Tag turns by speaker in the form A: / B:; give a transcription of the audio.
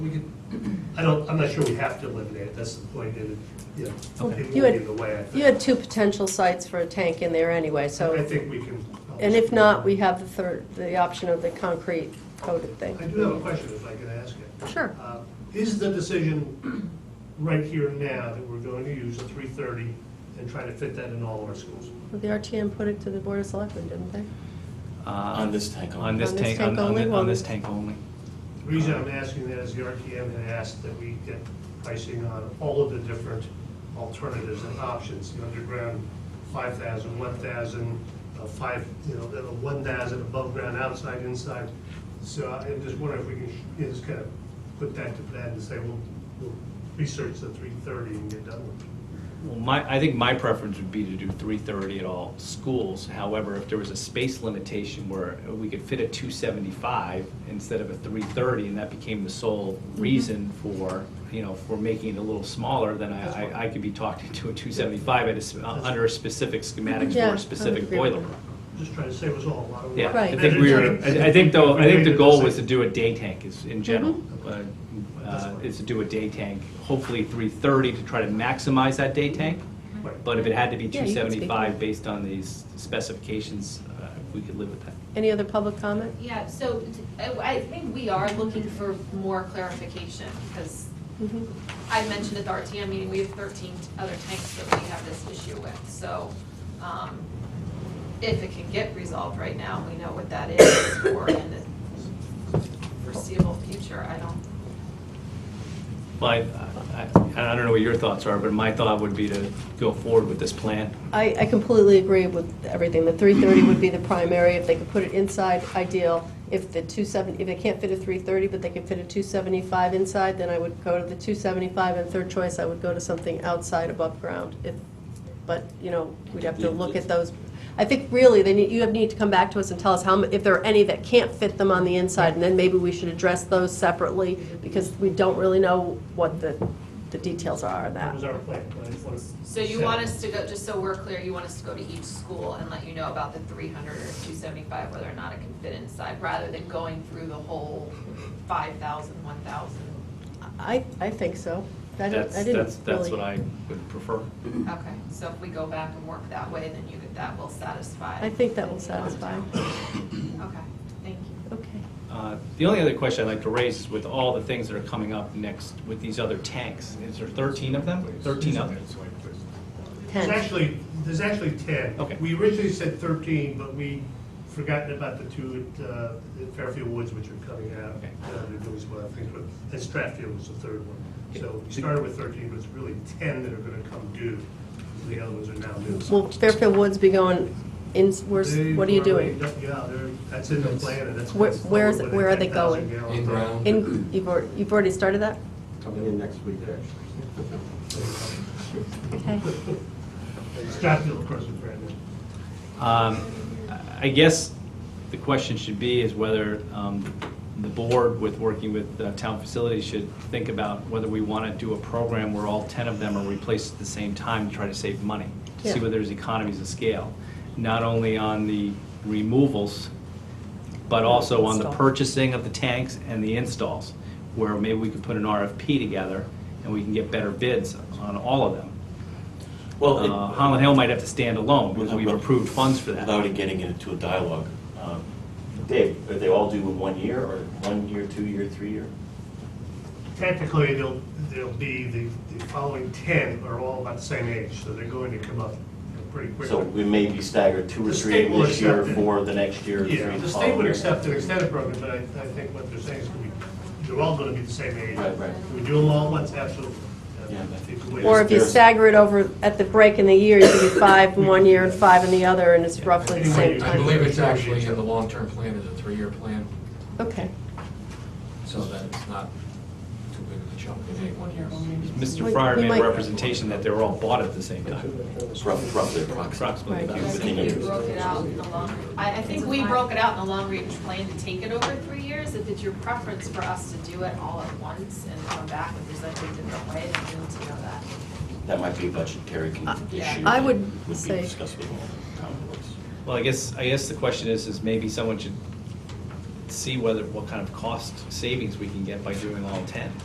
A: We could, I don't, I'm not sure we have to eliminate it, that's the point, and, you know,
B: Okay.
A: it
B: You
A: will
B: had-
A: be the way, I
B: You
A: think.
B: had two potential sites for a tank in there anyway,
A: I
B: so,
A: think we can.
B: and if not, we have the third, the option of the concrete coated
A: I
B: thing.
A: do have a question, if I could ask it.
B: Sure.
A: Uh, Is the decision right here and now that we're going to use the three thirty and try to fit that in all of our schools?
B: The RTM put it to the Board of Selectmen, didn't they?
C: On this tank only.
D: Uh, On this
B: On this
D: tank,
B: tank
D: on, on
B: only,
D: thi-
B: well-
D: on this tank only.
A: The reason I'm asking that is the RTM had asked that we get pricing on all of the different alternatives and options, the underground, 5,000, 1,000, uh, 5, you know, the 1,000 above ground, outside, inside. So I'm just wondering if we can, you know, just kind of put that to bed and say, we'll, we'll research the 330 and get done with it.
D: Well, my, I think my preference would be to do three thirty at all schools. However, if there was a space limitation where we could fit a two seventy-five instead of a three thirty, and that became the sole
B: Mm-hmm.
D: reason for, you know, for making it a little smaller, then
A: That's
D: I,
A: fine.
D: I, I could be talked into a two seventy-five at a, s- uh, under a specific schematics
B: Yeah, I
D: for a
B: would
D: specific
B: agree with
D: boiler.
B: that.
A: Just trying to save us all a lot of work.
D: Yeah, I
B: Right.
D: think we were, I I think though, I think the goal was to
A: do.
D: do a day tank is,
B: Mm-hmm.
D: in general,
A: Mhm.
D: uh, uh, is to do a day tank, hopefully three thirty to try to maximize that day tank.
A: Right.
D: But if it had to be
B: Yeah,
D: two
B: you can speak to
D: seventy-five
B: that.
D: based on these specifications, uh, we could live with that.
B: Any other public comment?
E: Yeah, so t- I I think we are looking for more clarification, because
B: Mhm.
E: I mentioned at the RTM meeting, we have 13 other tanks that we have this issue with. So um, if it can get resolved right now, we know what that is for in the foreseeable future. I don't,
D: Well, I, I, uh, I don't know what your thoughts are, but my thought would be to go forward with this plan.
B: I, I completely agree with everything. The three thirty would be the primary. If they could put it inside, ideal. If the two seventy, if they can't fit a three thirty, but they can fit a two seventy-five inside, then I would go to the two seventy-five, and third choice, I would go to something outside above ground. If, but, you know, we'd have to look at those. I think really, they need, you have need to come back to us and tell us how, mu- if there are any that can't fit them on the inside, and then maybe we should address those separately, because we don't really know what the, the details are of
A: That
B: that.
A: was our plan. but I just wanted to
E: so you
A: set
E: want
A: it.
E: us to go, just so we're clear, you want us to go to each school and let you know about the 300 or 275, whether or not it can fit inside, rather than going through the whole 5,000, 1,000?
B: I, I think so. I didn't,
D: That's,
B: I
D: that's,
B: didn't
D: that's what
B: really.
D: I would prefer.
E: Okay, so if we go back and work that way, then you, that will satisfy.
B: I think that will satisfy.
E: Okay, thank you.
B: Okay.
D: Uh, The only other question I'd like to raise is with all the things that are coming up next with these other tanks, is there 13 of them? 13 of them?
A: There's
B: Ten.
A: actually, there's actually 10.
D: Okay.
A: We originally said 13, but we forgotten about the two at uh, at Fairfield Woods, which are coming out.
D: Okay.
A: Uh, They're doing some other things, but, and Stratfield was the third one. So we
D: So-
A: started with 13, but it's really 10 that are going to come due. The other ones are now due.
B: Will Fairfield Woods be going in, where's,
A: They
B: what are you
A: were
B: doing?
A: laid up- Yeah, they're, that's in the plan, and that's.
B: Where-
A: that's
B: where's-
A: with a
B: where are they
A: 10,000
B: going?
A: gallon
C: In
A: drum.
C: ground.
B: In, you've, al- you've already started that?
F: Coming in next week, actually.
B: Okay.
A: Stratfield, of course, is brand new.
D: Um, I guess the question should be is whether um, the board with working with uh, town facilities should think about whether we want to do a program where all 10 of them are replaced at the same time to try to save money, to see
B: Yeah.
D: whether there's economies of scale, not only on the removals, but also on the
B: Install.
D: purchasing of the tanks and the installs, where maybe we could put an RFP together and we can get better bids on all of them.
C: Well, it-
D: Uh, Holland Hill might have to stand alone because
C: Without-
D: we've approved funds for that.
C: Without it getting into a dialogue, um, Dave, are they all due in one year, or one year, two year, three year?
A: Technically, they'll, they'll be, the, the following ten are all about the same age, so they're going to come up pretty
C: So
A: quickly.
C: we may be staggered two or
A: The
C: three
A: state will
C: this year,
A: accept it.
C: four the next year, three the
A: Yeah,
C: following.
A: the state would
C: year.
A: accept an extended program, but I, I think what they're saying is we, they're all gonna be the same age.
C: Right, right.
A: If We do them all at once, absolutely.
C: Yeah, but-
A: If we-
B: Or if you
C: There's-
B: stagger it over, at the break in the year, you could do five in one year and five in the other, and it's roughly the same
G: I
B: time.
G: believe it's actually in the long-term plan, is a three-year plan,
B: Okay.
G: so that it's not too big of a chunk in any one year.
D: Mr.
B: We-
D: Fryer
B: we
D: made
B: might-
D: a representation that they were all bought at the same time,
C: It's rough- Roughly.
D: approximately.
B: Right.
E: I think you broke it out in the long, I, I think we broke it out in the long-range plan to take it over three years. If it's your preference for us to do it all at once and come back and present it a different way, then we need to know that.
C: That might be a budgetary con-
B: I-
C: issue.
B: Uh, I
C: that
B: would say-
C: be discussed with all the town boards.
D: Well, I guess, I guess the question is, is maybe someone should see whether, what kind of cost savings we can get by doing all ten.